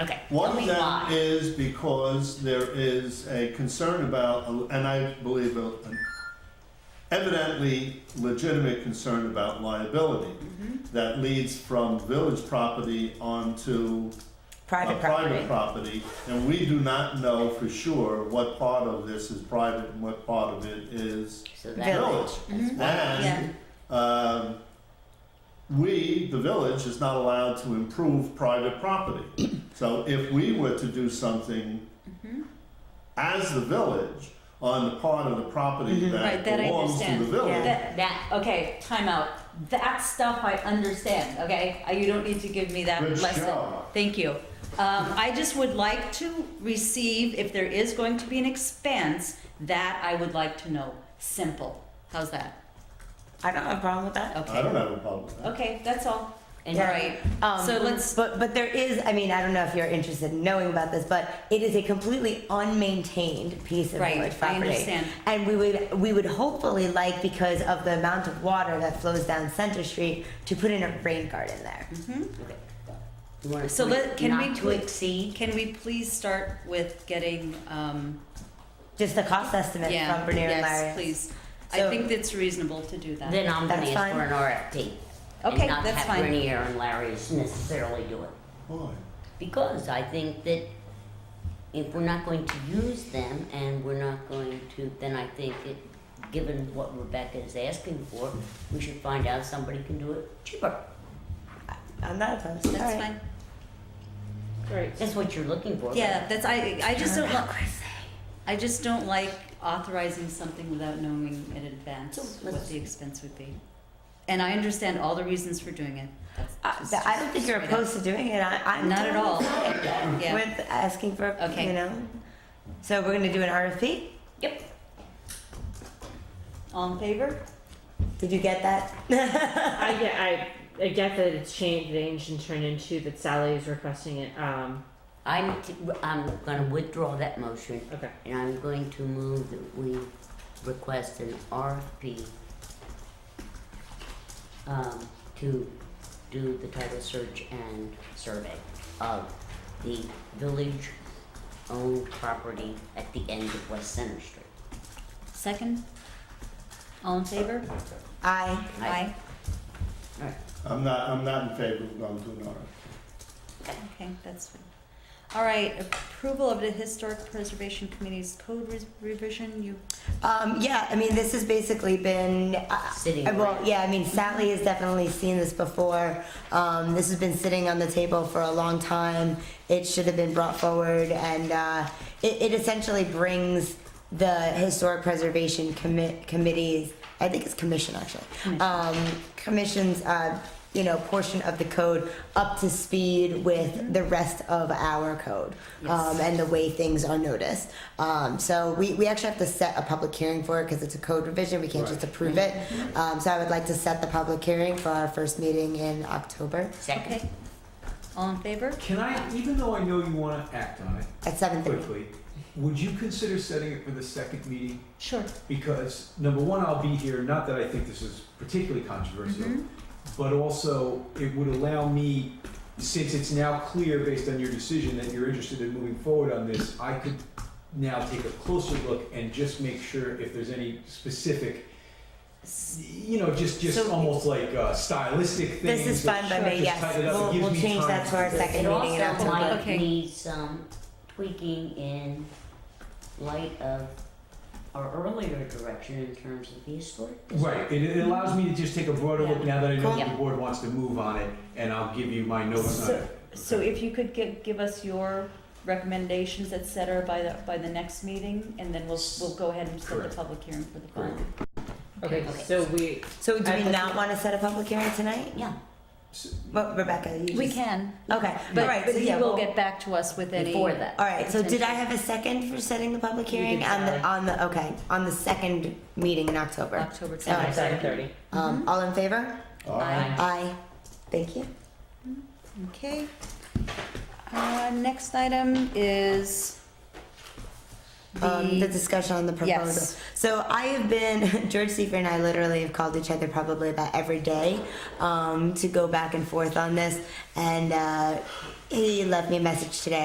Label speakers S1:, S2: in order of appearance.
S1: Okay.
S2: One
S1: tell
S2: of
S1: me
S2: them
S1: why.
S2: is because there is a concern about, and I believe a- an evidently legitimate concern about liability
S1: Mm-hmm.
S2: that leads from village property onto a
S3: Private property.
S2: private property. And we do not know for sure what part of this is private and what part of it is
S1: So that-
S2: village.
S1: Mm-hmm.
S2: And, um, we, the village, is not allowed to improve private property. So if we were to do something
S1: Mm-hmm.
S2: as the village on the part of the property that
S1: Mm-hmm. Right, that I
S2: belongs to
S1: understand.
S2: the village,
S1: That, that, okay, time out. That stuff I understand, okay? Uh, You don't need to give me that
S2: Good
S1: lesson.
S2: job.
S1: Thank you. Um, I just would like to receive, if there is going to be an expense, that I would like to know. Simple. How's that?
S3: I don't have a problem with that.
S2: I
S1: Okay.
S2: don't have a problem with that.
S1: Okay, that's all. All
S3: Yeah.
S1: right.
S3: Um,
S1: So let's,
S3: But but there is. I mean, I don't know if you're interested in knowing about this, but it is a completely unmaintained piece of
S1: Right,
S3: village
S1: I
S3: property.
S1: understand.
S3: And we would we would hopefully like because of the amount of water that flows down Center Street to put in a rain garden there.
S1: Mm-hmm.
S4: You wanna
S1: so
S4: commit
S1: let, can we,
S4: Not to
S1: please,
S4: exceed,
S1: can we please start with getting, um,
S3: Just the cost estimate
S1: yeah,
S3: from Bernier and
S1: yes,
S3: Larry.
S1: please. I
S3: So-
S1: think that's reasonable to do that.
S4: then I'm gonna
S3: That's
S4: ask for
S3: fine.
S4: an RFP.
S1: Okay,
S4: And not
S1: that's fine.
S4: have Grenier and Larry's necessarily do it.
S2: Boy,
S4: Because I think that if we're not going to use them and we're not going to, then I think it, given what Rebecca is asking for, we should find out somebody can do it cheaper.
S3: I'm not opposed. All
S1: That's
S3: right.
S1: fine.
S4: That's what you're looking for.
S1: Yeah, that's, I, I just don't, li-
S3: Democracy.
S1: I just don't like authorizing something without knowing in
S4: So,
S1: advance what
S4: let's-
S1: the expense would be. And I understand all the reasons for doing it. That's
S3: Uh,
S1: just-
S3: th- I don't think you're
S1: straight up.
S3: opposed to doing it. I, I'm
S1: Not at
S3: totally
S1: all.
S3: fine
S1: Yeah.
S3: With asking for,
S1: Okay.
S3: you know. So we're gonna do an RFP.
S1: Yep. All in favor?
S3: Did you get that?
S5: I get, I, I get that it's changed, changed and turned into that Sally is requesting it. Um,
S4: I'm, t- I'm gonna withdraw that motion
S5: okay.
S4: and I'm going to move that we request an RFP um, to do the title search and survey of the village-owned property at the end of West Center Street.
S1: Second? All in favor?
S3: I.
S4: Aye.
S2: I'm not, I'm not in favor of going to an RFP.
S1: Okay, that's fine. All right, approval of the Historic Preservation Committee's code re- revision, you,
S3: Um, yeah, I mean, this has basically been. Uh,
S4: Sitting
S3: Well,
S4: around.
S3: yeah, I mean, Sally has definitely seen this before. Um, this has been sitting on the table for a long time. It should have been brought forward, and uh, it, it essentially brings the Historic Preservation Commi- Committee's, I think it's commission actually, um, commission's, uh, you know, portion of the code up to speed with the rest of our code um, and the way things are noticed. Um, so we, we actually have to set a public hearing for it because it's a code revision. We can't just approve it. Um, so I would like to set the public hearing for our first meeting in October
S4: Second,
S1: okay? All in favor?
S6: Can I, even though I know you want to act on it
S3: at seven thirty.
S6: quickly, would you consider setting it for the second meeting?
S1: Sure.
S6: Because, number one, I'll be here, not that I think this is particularly
S1: Mm-hmm.
S6: controversial, but also it would allow me, since it's now clear based on your decision that you're interested in moving forward on this, I could now take a closer look and just make sure if there's any specific, you know, just, just
S3: So-
S6: almost like uh, stylistic things.
S3: This is
S6: that
S3: fine by me,
S6: just
S3: yes.
S6: tied it up. It
S3: We'll,
S6: gives
S3: we'll
S6: me
S3: change
S6: time
S3: that to our
S6: do
S3: second
S4: it
S3: meeting in
S4: also
S3: October.
S4: might
S1: Okay.
S4: need some tweaking in light of our earlier direction in terms of the historic district.
S6: Right, it, it allows me to just take a broader look now that I know
S3: Cool.
S6: the board wants to move on it, and I'll give you my notes on
S1: So,
S6: it.
S1: so if you could give, give us your recommendations, et cetera, by the, by the next meeting, and then we'll, we'll go ahead and set the
S6: Correct.
S1: public hearing for the bond.
S5: Okay,
S4: Okay.
S5: so we,
S3: So do we
S5: I-
S3: not want to set a public hearing tonight?
S4: Yeah,
S3: Well, Rebecca, you
S1: We
S3: just-
S1: can,
S3: Okay, all
S1: but,
S3: right,
S1: but
S3: so
S1: he
S3: yeah,
S1: will
S3: we'll-
S1: get back to us with any.
S4: before that.
S3: All right, so did I have a second for setting the public
S5: You
S3: hearing
S5: did,
S3: on the,
S5: Sally.
S3: on the, okay, on the second meeting in October?
S1: October
S3: All right.
S1: tenth.
S5: seven thirty.
S3: Um, all in favor?
S1: Aye.
S3: Aye. Thank you.
S1: Okay. Uh, next item is
S3: Um, the
S1: the,
S3: discussion on the proposal.
S1: yes.
S3: So I have been, George Seifert and I literally have called each other probably about every day um, to go back and forth on this. And uh, he left me a message today.